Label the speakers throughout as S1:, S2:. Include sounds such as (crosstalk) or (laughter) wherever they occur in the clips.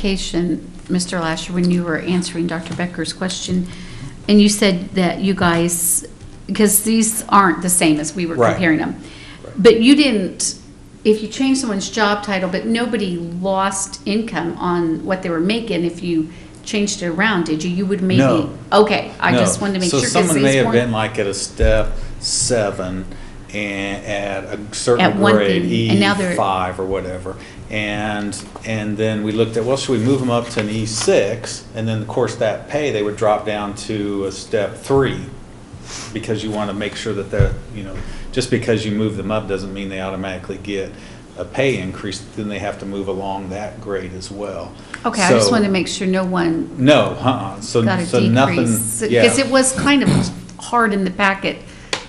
S1: Clarification, Mr. Lasher, when you were answering Dr. Becker's question, and you said that you guys, because these aren't the same as we were
S2: Right.
S1: comparing them.
S2: Right.
S1: But you didn't, if you change someone's job title, but nobody lost income on what they were making if you changed it around, did you? You would maybe.
S2: No.
S1: Okay, I
S2: No.
S1: just wanted to make sure.
S2: So
S1: 'cause
S2: someone may
S1: these
S2: have
S1: weren't-
S2: been like at a step seven and at a
S1: At
S2: certain
S1: one
S2: grade,
S1: thing, and now they're-
S2: E five or whatever. And, and then we looked at, well, should we move them up to an E six? And then, of course, that pay, they would drop down to a step three. Because you want to make sure that they're, you know, just because you move them up doesn't mean they automatically get a pay increase. Then they have to move along that grade as well.
S1: Okay, I just
S2: So-
S1: wanted to make sure no one
S2: No, uh-uh, so,
S1: got a
S2: so nothing,
S1: decrease.
S2: yeah.
S1: Because it was kind of hard in the packet,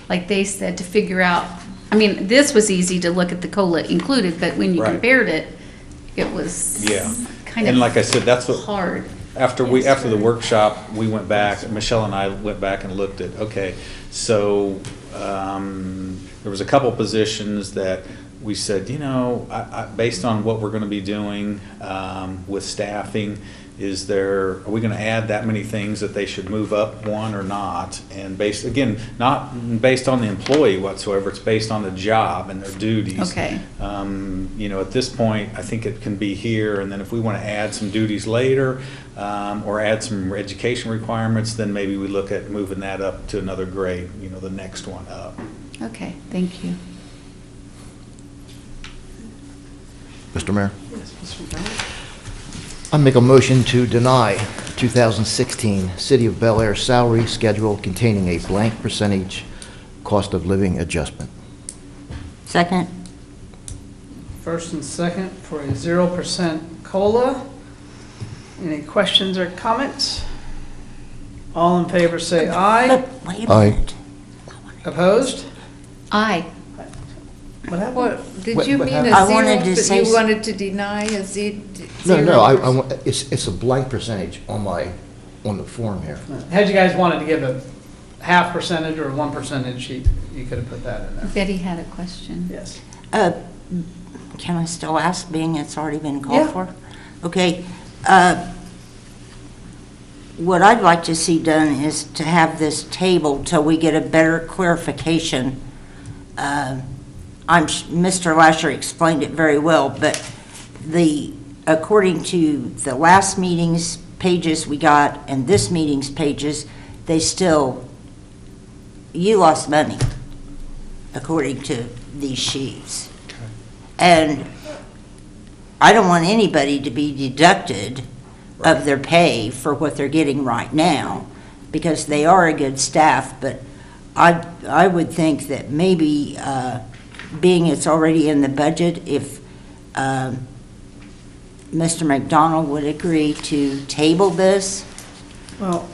S1: like they said, to figure out, I mean, this was easy to look at the COLA included, but when you
S2: Right.
S1: compared it, it was
S2: Yeah.
S1: kind
S2: And like I
S1: of
S2: said, that's what,
S1: hard.
S2: after we,
S1: Yes,
S2: after the
S1: sir.
S2: workshop, we went back, Michelle and I went back and looked at, okay, so, um, there was a couple positions that we said, you know, I, I, based on what we're gonna be doing, um, with staffing, is there, are we gonna add that many things that they should move up one or not? And based, again, not based on the employee whatsoever, it's based on the job and their duties.
S1: Okay.
S2: Um, You know, at this point, I think it can be here, and then if we want to add some duties later, um, or add some education requirements, then maybe we look at moving that up to another grade, you know, the next one up.
S1: Okay, thank you.
S3: Mr. Mayor? I make a motion to deny 2016 City of Bel Air salary schedule containing a blank percentage cost of living adjustment.
S4: Second?
S5: First and second for a zero percent COLA. Any questions or comments? All in favor say aye. (laughs)
S4: But wait a
S3: Aye.
S4: minute.
S5: Opposed?
S1: Aye.
S5: What happened?
S6: What, did
S3: What-
S6: you
S3: what
S6: mean a
S4: happened? I
S6: zero,
S4: wanted to
S6: but
S4: say
S6: you
S4: s-
S6: wanted to deny a ze-
S3: No,
S6: zero?
S3: no, I, I
S6: percent?
S3: want- it's, it's a blank percentage on my, on the form here.
S5: Had you guys wanted to give a half percentage or a one percentage, you, you could have put that in there.
S1: Betty had a question.
S5: Yes.
S4: Uh, Can I still ask, being it's already been
S5: Yeah.
S4: called for? Okay. uh, What I'd like to see done is to have this table till we get a better clarification. Uh, I'm, s- Mr. Lasher explained it very well, but the, according to the last meeting's pages we got and this meeting's pages, they still, you lost money, according to these sheets. And I don't want anybody to be deducted of their pay for what they're getting right now, because they are a good staff, but I, I would think that maybe, uh, being it's already in the budget, if um, Mr. McDonald would agree to table this
S5: Well,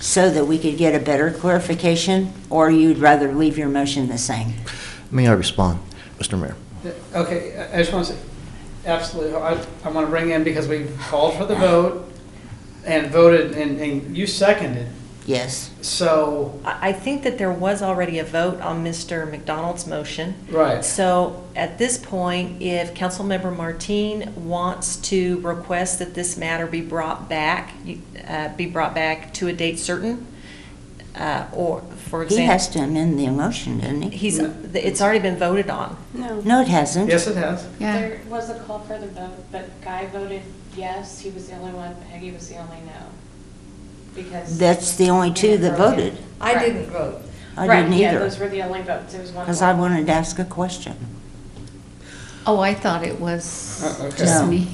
S4: so that we could get a better clarification, or you'd rather leave your motion the same?
S3: May I respond, Mr. Mayor?
S5: Uh, Okay, I- I just want to say, absolutely, I, I want to bring in, because we called for the vote and voted, and, and you seconded,
S4: Yes.
S5: so,
S7: I I think that there was already a vote on Mr. McDonald's motion.
S5: right.
S7: So at this point, if Councilmember Martine wants to request that this matter be brought back, you- uh, be brought back to a date certain, uh, or, for
S4: He has
S7: example,
S4: to amend the motion, doesn't he?
S7: he's, it's already been voted on.
S8: No,
S4: No, it hasn't.
S5: Yes, it has.
S1: Yeah,
S8: there was a call for the vote, but Guy voted yes, he was the only one, Peggy was the only no. Because.
S4: That's the only two that voted.
S6: I
S8: Right.
S6: didn't vote.
S4: I
S8: Right,
S4: didn't
S8: Yeah,
S4: either,
S8: those were the only votes, it was one.
S4: because
S8: vote.
S4: I wanted to ask a question.
S1: oh, I thought it was
S5: Uh, okay.
S1: just
S4: No.
S1: me.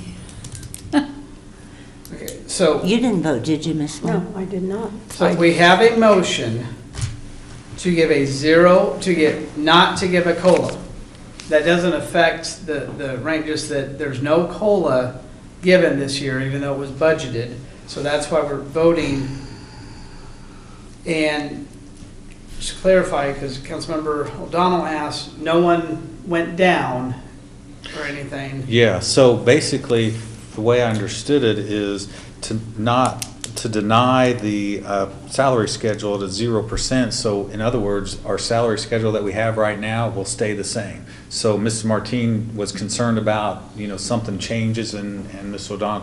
S5: Okay, so.
S4: You didn't vote, did you, Miss Lynn?
S9: No, I did not.
S5: So we have a motion to give a zero, to get, not to give a COLA. That doesn't affect the, the rank, just that there's no COLA given this year, even though it was budgeted. So that's why we're voting. And just to clarify, because Councilmember O'Donnell asked, no one went down or anything.
S2: Yeah, so basically, the way I understood it is to not, to deny the uh, salary schedule to zero percent. So in other words, our salary schedule that we have right now will stay the same. So Mrs. Martine was concerned about, you know, something changes and, and Ms. O'Donnell